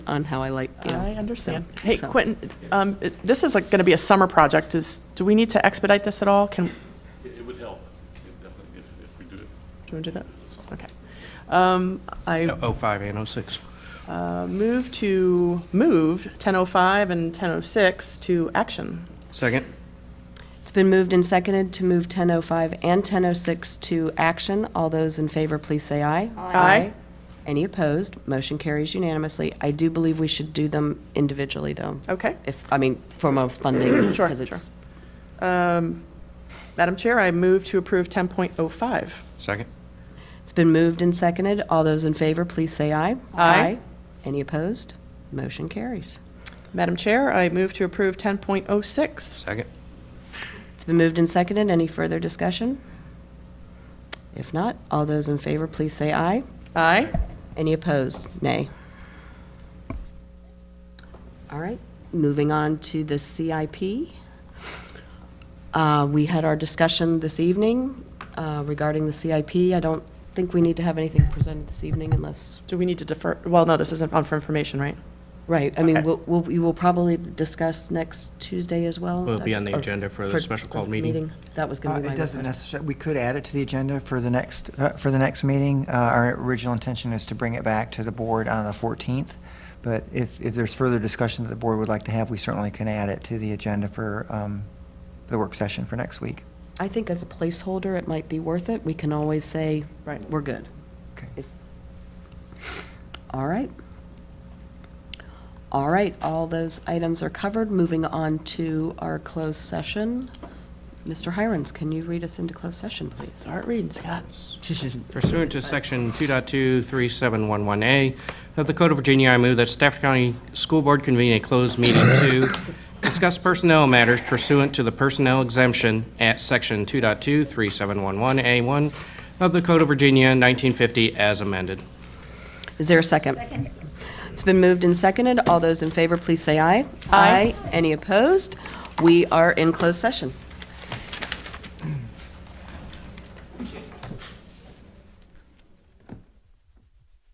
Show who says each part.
Speaker 1: on how I like, you know.
Speaker 2: I understand.
Speaker 1: so-
Speaker 2: Hey,
Speaker 1: so-
Speaker 2: Quentin, um, it- this is like going to be a summer project. Is, do we need to expedite this at all? Can, do
Speaker 3: It it would help, it definitely, if, if we do it.
Speaker 2: you want to do that? Okay. Um, I
Speaker 4: Oh, 05 and 06.
Speaker 2: uh, move to, move 1005 and 1006 to action.
Speaker 4: Second?
Speaker 1: It's been moved and seconded to move 1005 and 1006 to action. All those in favor, please say aye.
Speaker 2: Aye.
Speaker 1: Any opposed? Motion carries unanimously. I do believe we should do them individually, though.
Speaker 2: Okay.
Speaker 1: If, I mean, from a funding,
Speaker 2: Sure,
Speaker 1: because it's,
Speaker 2: Madam Chair, I move to approve 10.05.
Speaker 4: Second?
Speaker 1: it's been moved and seconded. All those in favor, please say aye.
Speaker 2: Aye.
Speaker 1: Any opposed? Motion carries.
Speaker 2: Madam Chair, I move to approve 10.06.
Speaker 4: Second?
Speaker 1: It's been moved and seconded. Any further discussion? If not, all those in favor, please say aye.
Speaker 2: Aye.
Speaker 1: Any opposed? Nay. All right, moving on to the CIP. Uh, We had our discussion this evening uh, regarding the CIP. I don't think we need to have anything presented this evening unless,
Speaker 2: Do we need to defer, well, no, this isn't on for information, right?
Speaker 1: right, I mean,
Speaker 2: Okay.
Speaker 1: we'll, we'll- we will probably discuss next Tuesday as well.
Speaker 4: Will it be on the
Speaker 1: Or-
Speaker 4: agenda for the special call meeting?
Speaker 1: That was
Speaker 5: Uh,
Speaker 1: going to be my
Speaker 5: It doesn't
Speaker 1: request.
Speaker 5: necessarily, we could add it to the agenda for the next, uh, for the next meeting. Uh, Our original intention is to bring it back to the board on the 14th, but if, if there's further discussion that the board would like to have, we certainly can add it to the agenda for um, the work session for next week.
Speaker 1: I think as a placeholder, it might be worth it. We can always say,
Speaker 2: Right.
Speaker 1: we're good.
Speaker 5: Okay.
Speaker 1: All right. All right, all those items are covered. Moving on to our closed session. Mr. Hirons, can you read us into closed session, please?
Speaker 2: Start reading, Scott.
Speaker 4: Pursuant to Section 2.23711A of the Code of Virginia, I move that Stafford County School Board convene a closed meeting to discuss personnel matters pursuant to the personnel exemption at Section 2.23711A1 of the Code of Virginia, 1950, as amended.
Speaker 1: Is there a second? It's been moved and seconded. All those in favor, please say aye. Aye. Any opposed? We are in closed session.